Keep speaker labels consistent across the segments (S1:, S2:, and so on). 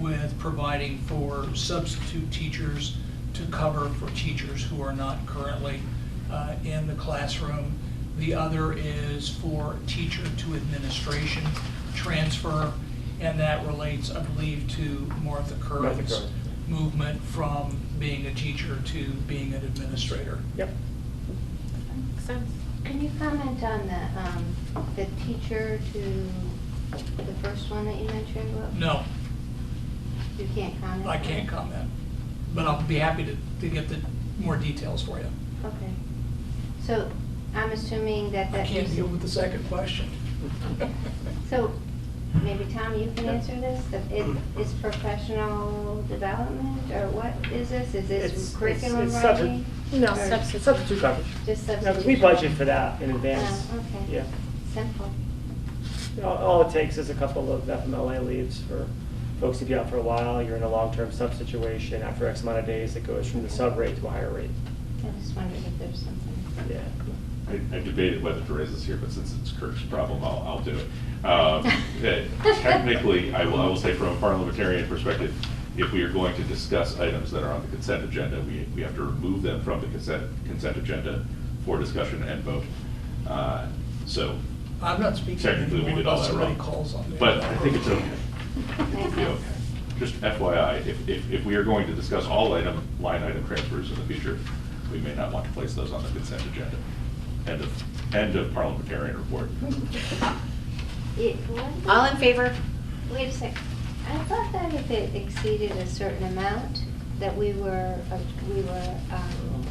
S1: with providing for substitute teachers to cover for teachers who are not currently uh, in the classroom. The other is for teacher to administration transfer, and that relates, I believe, to Martha
S2: Martha
S1: Curran's
S2: Curran.
S1: movement from being a teacher to being an administrator.
S2: Yep.
S3: Makes sense.
S4: Can you comment on the, um, the teacher to the first one that you mentioned? Will?
S1: No,
S4: You can't comment?
S1: I
S4: on
S1: can't
S4: it?
S1: comment, but I'll be happy to, to get the more details for you.
S4: Okay. So I'm assuming that
S1: I
S4: that
S1: can't
S4: is.
S1: deal with the second question.
S4: So maybe Tom, you can answer this? That It is professional development or what is this? Is
S2: It's-
S4: this curriculum
S2: it's- it's subject-
S4: writing?
S2: No,
S4: Or
S3: Substitute.
S2: substitute coverage.
S4: Just
S2: No, because
S4: substitution?
S2: we budget for that in advance.
S4: Oh, okay.
S2: Yeah.
S4: Simple.
S2: All- All it takes is a couple of FMLA leaves for folks to be out for a while. You're in a long-term sub situation. After X amount of days, it goes from the sub rate to a higher rate.
S4: I just wondered if there's something.
S2: Yeah.
S5: I I debated whether to raise this here, but since it's Kirk's problem, I'll, I'll do it. Um, that Technically, I will, I will say from a parliamentarian perspective, if we are going to discuss items that are on the consent agenda, we, we have to remove them from the consent, consent agenda for discussion and vote. Uh, So
S1: I'm not speaking
S5: technically, we
S1: anymore
S5: did all
S1: unless
S5: that
S1: somebody
S5: wrong.
S1: calls on me.
S5: But I think it's okay.
S4: Makes
S5: It'll be
S4: sense.
S5: okay. Just FYI, if, if, if we are going to discuss all item, line item transfers in the future, we may not want to place those on the consent agenda. End of, end of parliamentarian report.
S4: Yeah, what?
S3: All in favor?
S4: Wait a sec, I thought that if it exceeded a certain amount, that we were, uh, we were, um,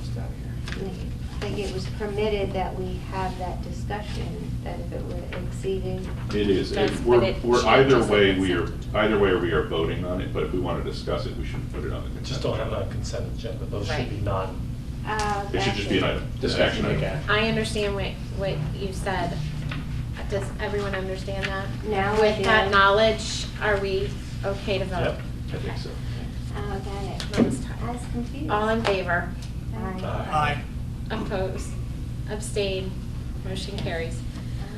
S4: I think it was permitted that we have that discussion, that if it were exceeded.
S5: It is, it-
S3: Does- but
S5: we're,
S3: it
S5: we're either
S3: changes the
S5: way, we are,
S3: consent.
S5: either way, we are voting on it, but if we want to discuss it, we should put it on the consent.
S6: Just don't have it
S5: agenda.
S6: on consent agenda, those should
S3: Right.
S6: be non,
S4: Uh,
S5: It should just be an item, just action item.
S3: I understand what, what you said. Does everyone understand that?
S4: Now we
S3: With that
S4: do.
S3: knowledge, are we okay to vote?
S6: yep.
S5: I think so.
S4: Oh, got it.
S3: Last time.
S4: I was confused.
S3: All in favor?
S4: Aye.
S1: Aye.
S3: Oppose? Abstain? Motion carries.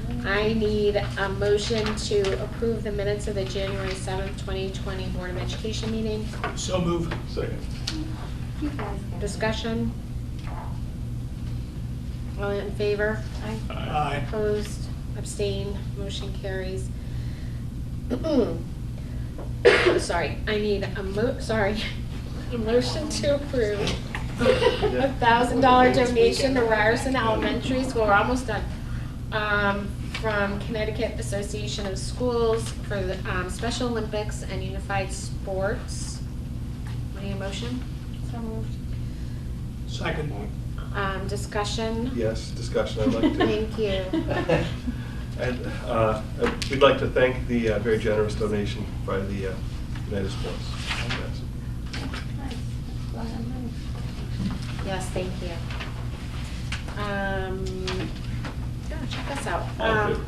S4: Um,
S3: I need a motion to approve the minutes of the January 7th, 2020 Board of Education meeting.
S1: So move.
S5: Second.
S4: You guys got it.
S3: Discussion? All in favor? Aye.
S1: Aye.
S3: Opposed, abstained, motion carries. Sorry, I need a mo, sorry, a motion to approve a thousand dollar donation to Ryerson Elementary School, we're almost done, um, from Connecticut Association of Schools for the, um, Special Olympics and Unified Sports. Any motion?
S4: So moved.
S1: Second.
S3: Um, discussion?
S6: Yes, discussion, I'd like to.
S3: Thank you.
S6: And uh, we'd like to thank the uh, very generous donation by the uh, United Sports. Yes.
S4: Nice. That's a lot of money.
S3: Yes, thank you. Um, yeah, check us out.
S5: All in
S3: Um,
S5: favor?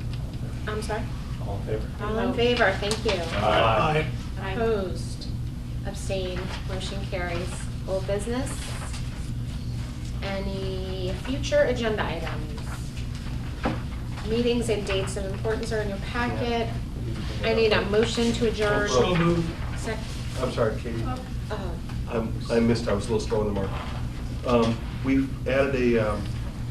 S3: I'm sorry?
S6: All in favor?
S3: All in favor, thank you.
S1: Aye.
S3: Opposed, abstained, motion carries. Whole business? Any future agenda items? Meetings and dates of importance are in your packet. I need a motion to adjourn.
S1: So move.
S3: Sec,
S6: I'm sorry, Katie.
S3: oh,
S6: I'm- I missed, I was a little slow on the mark. Um, We've added a, um,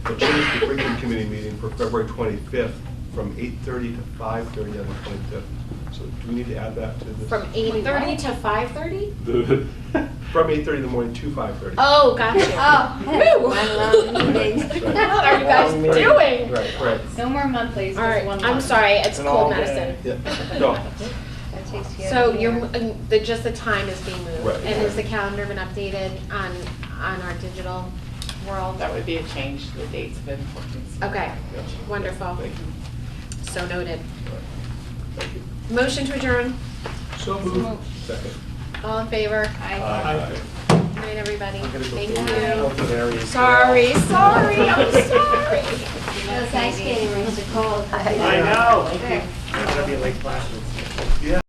S6: a change to curriculum committee meeting for February 25th from 8:30 to 5:30 on the 25th. So do we need to add that to this?
S3: from eight thirty to five thirty?
S5: The-
S6: From 8:30 in the morning to 5:30.
S3: Oh, gotcha.
S4: Oh,
S3: Woo.
S4: one long meeting.
S3: What are you guys
S2: Long meeting.
S3: doing?
S6: Right, right.
S7: No more monthlies,
S3: All
S7: just
S3: right,
S7: one.
S3: I'm
S7: month.
S3: sorry, it's
S2: An
S3: cold
S2: all day.
S3: medicine.
S6: Yeah. No.
S4: That takes care of
S3: So
S4: the-
S3: you're, and the, just the time is being moved.
S6: Right.
S3: And has the calendar been updated on, on our digital world?
S7: That would be a change to the dates of importance.
S3: Okay, wonderful.
S6: Thank you.
S3: So noted.
S6: Thank you.
S3: Motion to adjourn,
S1: So move.
S6: Second.
S3: all in favor?
S1: Aye.
S3: Good night, everybody.
S2: I'm gonna go
S3: Thank
S2: through
S3: you.
S2: the areas.
S3: Sorry, sorry, I'm sorry.
S4: Those ice skating rings are cold.
S2: I know. It's gonna be a late class.